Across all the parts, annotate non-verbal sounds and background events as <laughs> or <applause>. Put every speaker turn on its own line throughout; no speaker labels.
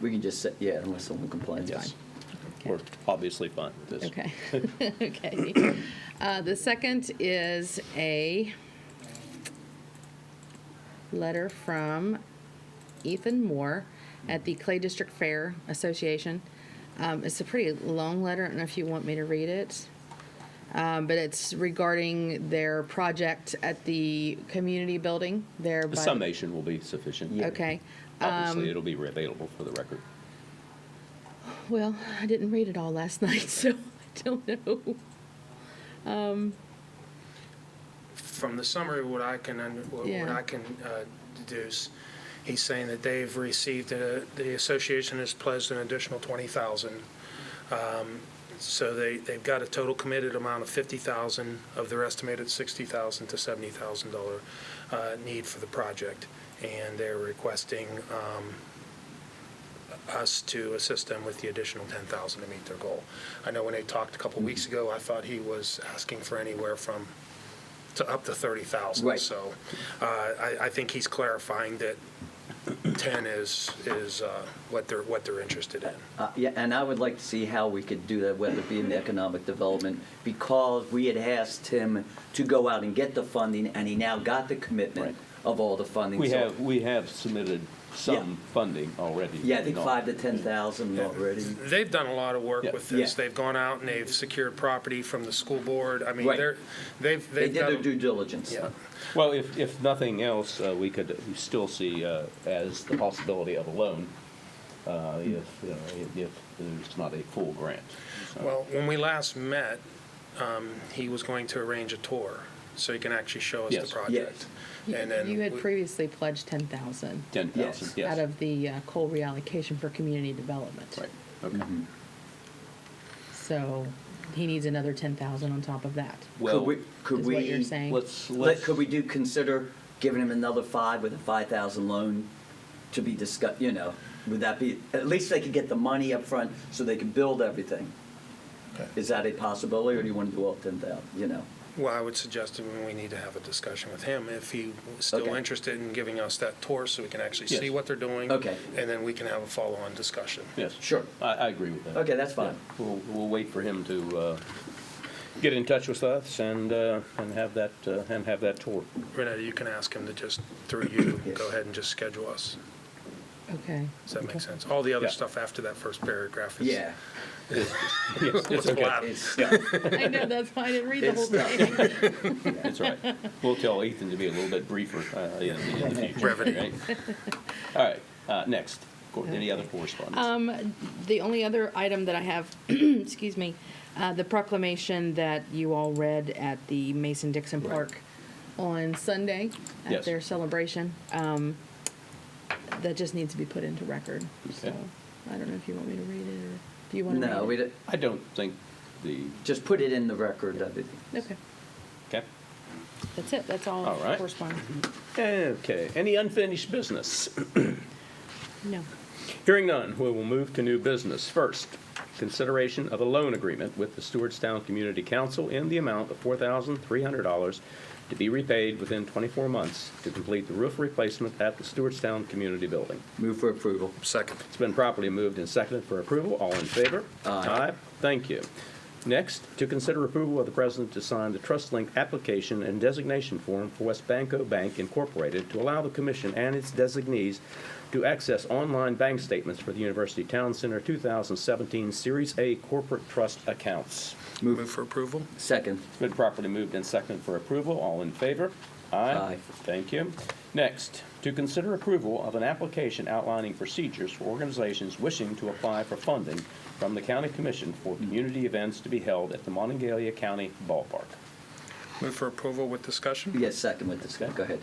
We can just say, yeah, unless someone complains,
Yes.
fine.
We're obviously fine. with this. <laughs>
Okay, okay. Uh, The second is a letter from Ethan Moore at the Clay District Fair Association. Um, It's a pretty long letter, I don't know if you want me to read it. Um, But it's regarding their project at the community building there.
The
by-
summation will be sufficient.
Yeah.
Okay,
Obviously, it'll be available for the record.
well, I didn't read it all last <laughs> night, so I don't know.
from the summary, what I can, un- what what
Yeah.
I can uh, deduce, he's saying that they've received, uh, the association has pledged an additional 20,000. Um, So they, they've got a total committed amount of 50,000 of their estimated 60,000 to 70,000 dollar uh, need for the project. And they're requesting um, us to assist them with the additional 10,000 to meet their goal. I know when they talked a couple
Mm-hmm.
weeks ago, I thought he was asking for anywhere from to up to 30,000.
Right.
So uh, I, I think he's clarifying that 10 is, is uh, what they're, what they're interested in.
Uh, Yeah, and I would like to see how we could do that, whether it be in the economic development, because we had asked him to go out and get the funding, and he now got the commitment
Right.
of all the funding.
We
So,
have, we have submitted some funding already.
Yeah, I think
Not-
five to 10,000 already.
They've done a lot of work
Yeah.
with this.
Yeah.
They've gone out and they've secured property from the school board. I mean,
Right.
they're, they've,
They
they've
did their
done.
due diligence.
Yeah.
Well, if, if nothing else, uh, we could we still see uh, as the possibility of a loan uh, if, you know, if- if there's not a full grant. So-
Well, when we last met, um, he was going to arrange a tour so he can actually show us
Yes.
the project. And then
You had
we-
previously pledged ten thousand
10,000,
Yes.
yes.
out of the uh, coal reallocation for community development.
Right, Mm-hmm. okay.
So he needs another ten thousand on top of that.
Could
Well,
we, could
Is
we?
what you're saying.
let's,
Let-
let's,
Could we do, consider giving him another five with a 5,000 loan to be discussed, you know? Would that be, at least they could get the money up front so they could build everything. Is that a possibility, or do you want to do all 10,000, you know?
Well, I would suggest that we need to have a discussion with him if he was still
Okay.
interested in giving us that tour so we can actually
Yes.
see what they're doing.
Okay.
And then we can have a follow-on discussion.
yes.
Sure.
I, I agree with that.
Okay, that's fine.
Yeah. We'll, we'll wait for him to uh, get in touch with us and, uh, and have that, uh, and have that tour.
Renetta, you can ask him to just, through you,
Yes.
go ahead and just schedule us.
Okay.
Does that make sense? All the other
Yeah.
stuff after that first paragraph is.
Yeah.
<laughs> Yes, it's okay.
Wow.
It's,
<laughs> I know, that's why I didn't read the
It's
whole
<laughs>
thing. <laughs>
That's right. We'll tell Ethan to be a little bit briefer uh, in the in the <laughs> future.
Brevity.
right? All right, uh, next. Cor- Any other
Okay.
correspondence?
The only other item that I have, <clears throat> excuse me, uh, the proclamation that you all read at the Mason Dixon
Right.
Park on Sunday at
Yes.
their celebration. um, That just needs to be put into record, so
Okay.
I don't know if you want me to read it or if you want to read it.
No, we, don't-
I don't think the,
just put it in the record of it.
Okay,
okay.
that's it, that's all
All right.
correspondence.
Okay, any unfinished business?
No.
Hearing none, we will move to new business. First, consideration of a loan agreement with the Stewartstown Community Council in the amount of $4,300 to be repaid within 24 months to complete the roof replacement at the Stewartstown Community Building.
Move for approval.
Second.
It's been properly moved and seconded for approval. All in favor?
Aye.
Thank you. Next, to consider approval of the president to sign the Trust Link application and designation form for West Banco Bank Incorporated to allow the commission and its designees to access online bank statements for the University Town Center 2017 Series A Corporate Trust Accounts.
Move for approval?
Second.
It's been properly moved and seconded for approval. All in favor?
Aye.
Thank you. Next, to consider approval of an application outlining procedures for organizations wishing to apply for funding from the county commission
Mm.
for community events to be held at the Monongalia County Ballpark.
Move for approval with discussion?
Yes, second with this, go ahead.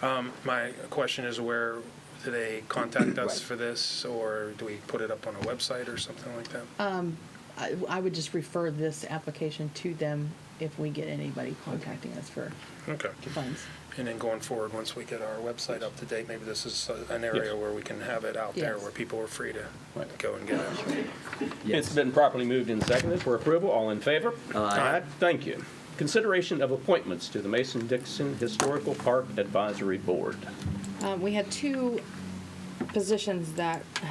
Um, My question is where, do they contact us
Right.
for this, or do we put it up on a website or something like that?
I, I would just refer this application to them if we get anybody contacting us for
Okay.
funds.
And then going forward, once we get our website up to date, maybe this is uh, an area where we can have it out there,
Yes.
where people are free to
Right.
go and get it.
It's been properly moved and seconded for approval. All in favor?
Aye.
Thank you. Consideration of appointments to the Mason-Dixon Historical Park Advisory Board.
Um, we had two positions that